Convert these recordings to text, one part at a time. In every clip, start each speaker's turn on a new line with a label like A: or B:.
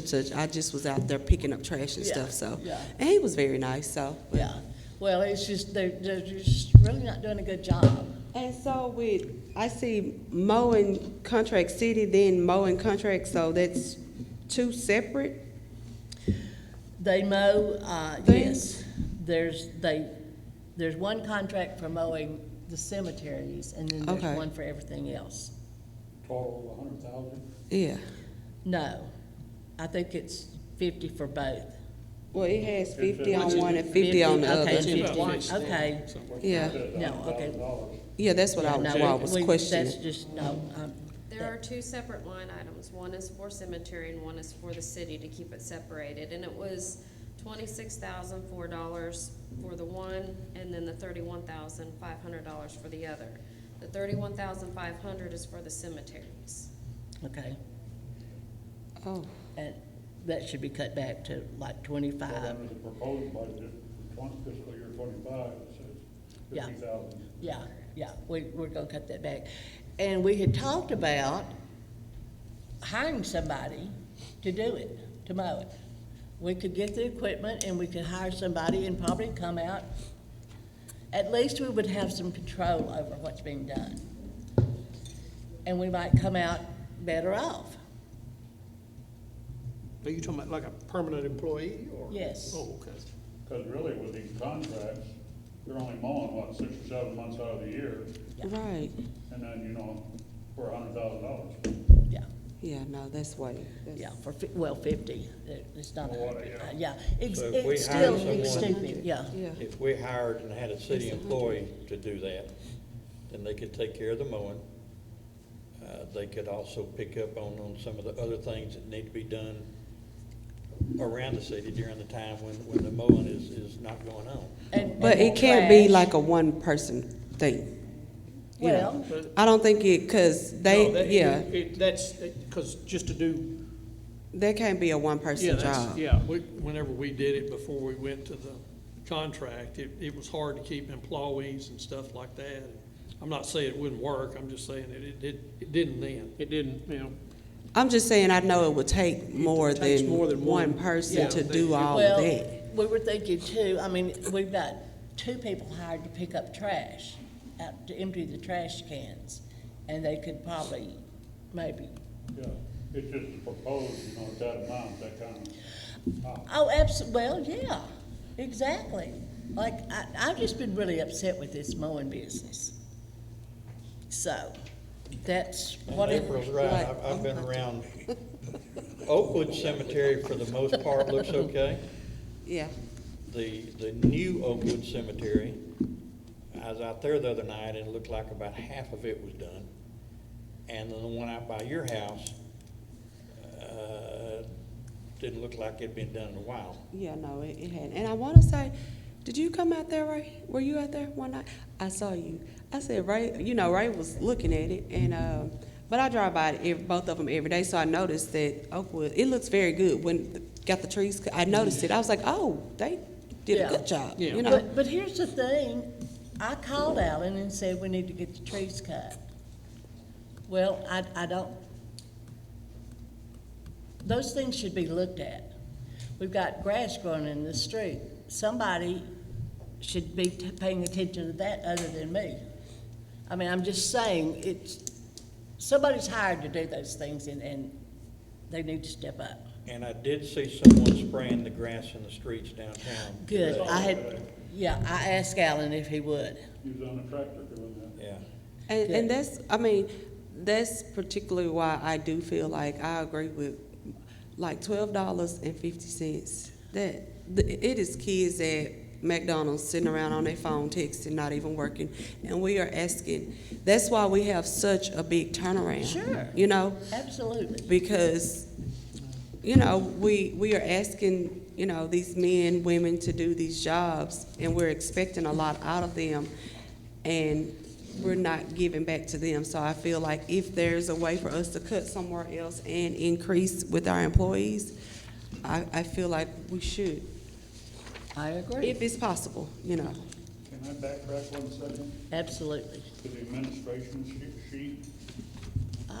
A: Judge, I just was out there picking up trash and
B: Yeah,
A: stuff, so.
B: yeah.
A: And he was very nice, so.
B: Yeah, well, it's just, they, they're just really not doing a good job.
A: And so with, I see mowing contract city, then mowing contract, so that's two separate?
B: They mow, uh, yes, there's, they, there's one contract for mowing the cemeteries, and then
A: Okay.
B: there's one for everything else.
C: total of a hundred thousand?
A: Yeah.
B: No, I think it's fifty for both.
A: Well, it has fifty on one and fifty on the
B: Okay,
A: other.
B: and fifty, okay.
A: Yeah,
B: No, okay.
A: yeah, that's what I
B: No,
A: was, why I was
B: we-
A: questioning.
B: That's just, no, um,
D: There are two separate line items. One is for cemetery and one is for the city to keep it separated. And it was twenty-six thousand four dollars for the one and then the thirty-one thousand five hundred dollars for the other. The thirty-one thousand five hundred is for the cemeteries.
B: okay,
A: Oh,
B: and that should be cut back to like twenty-five,
C: The proposed budget, twenty fiscal year twenty-five, it says
B: Yeah.
C: fifty thousand.
B: Yeah, yeah, we, we're gonna cut that back. And we had talked about hiring somebody to do it, to mow it. We could get the equipment and we could hire somebody and probably come out. At least we would have some control over what's being done. And we might come out better off.
E: Are you talking about like a permanent employee or?
B: Yes.
E: Oh, okay.
C: Because really with these contracts, you're only mowing, what, six or seven months out of the year,
A: right,
C: and then, you know, for a hundred thousand dollars.
B: Yeah,
A: yeah, no, that's way, that's-
B: yeah, for, fif- well, fifty, It- it's not a
C: Well,
B: hundred, uh, yeah.
C: yeah.
B: It's,
F: So if we
B: it's
F: hire
B: still, it's
F: someone-
B: stupid, yeah.
A: yeah,
F: If we hired and had a city employee to do that, then they could take care of the mowing. Uh, They could also pick up on, on some of the other things that need to be done around the city during the time when, when the mowing is, is not going on.
B: And- and
A: but
B: more
A: it can't be
B: trash.
A: like a one-person thing. you know.
B: Well,
E: But-
A: I don't think it, cause
E: No, that-
A: they, yeah,
E: it- it- That's, because just to do,
A: that can't be a
E: yeah,
A: one-person
E: that's,
A: job.
E: yeah, we, whenever we did it before we went to the contract, it, it was hard to keep employees and stuff like that. I'm not saying it wouldn't work, I'm just saying it, it, did- it didn't then. It didn't, you know.
A: I'm just saying, I know it would take more
E: takes more
A: than
E: than
A: one
E: one.
A: person
E: Yeah.
A: to do all of
B: Well,
A: that.
B: We were thinking too, I mean, we've got two people hired to pick up trash, out to empty the trash cans, and they could probably, maybe.
C: Yeah, it's just the proposed, you know, that amount, that kind of,
B: Oh, abso, well, yeah, exactly. Like, I, I've just been really upset with this mowing business. So, that's
F: And
B: what it.
F: April's right, I've, I've been around. Oakwood Cemetery for the most part looks okay.
A: Yeah,
F: The, the new Oakwood Cemetery, I was out there the other night and it looked like about half of it was done. And then the one out by your house, uh, didn't look like it'd been done in a while.
A: yeah, no, it, it had, and I wanna say, did you come out there, Ray? Were you out there one night? I saw you. I said, Ray, you know, Ray was looking at it, and, um, but I drive by it, ev- both of them every day, so I noticed that Oakwood, it looks very good when, the- got the trees, cut. I noticed it, I was like, oh, they did a
B: Yeah.
A: good job,
E: Yeah.
A: you know?
B: But, but here's the thing, I called Alan and said we need to get the trees cut. Well, I, I don't, those things should be looked at. We've got grass growing in the street. Somebody should be t- paying attention to that other than me. I mean, I'm just saying, it's, somebody's hired to do those things and, and they need to step up.
F: And I did see someone spraying the grass in the streets downtown.
B: Good, I had, yeah, I asked Alan if he would.
C: he was on a tractor doing that.
F: Yeah.
A: And, and
B: Yeah.
A: that's, I mean, that's particularly why I do feel like I agree with, like, twelve dollars and fifty cents. That, th- it is kids at McDonald's sitting around on their phone texting, not even working, and we are asking, that's why we have such a big turnaround.
B: Sure.
A: You know,
B: Absolutely.
A: because, you know, we, we are asking, you know, these men, women to do these jobs, and we're expecting a lot out of them, and we're not giving back to them. So I feel like if there's a way for us to cut somewhere else and increase with our employees, I, I feel like we should,
B: I agree.
A: if it's possible, you know.
C: Can I backtrack one second
B: Absolutely. Um,
C: to the administration she- sheet?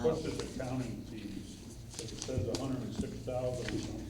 C: What's this accounting fees? it says a hundred and six thousand or something.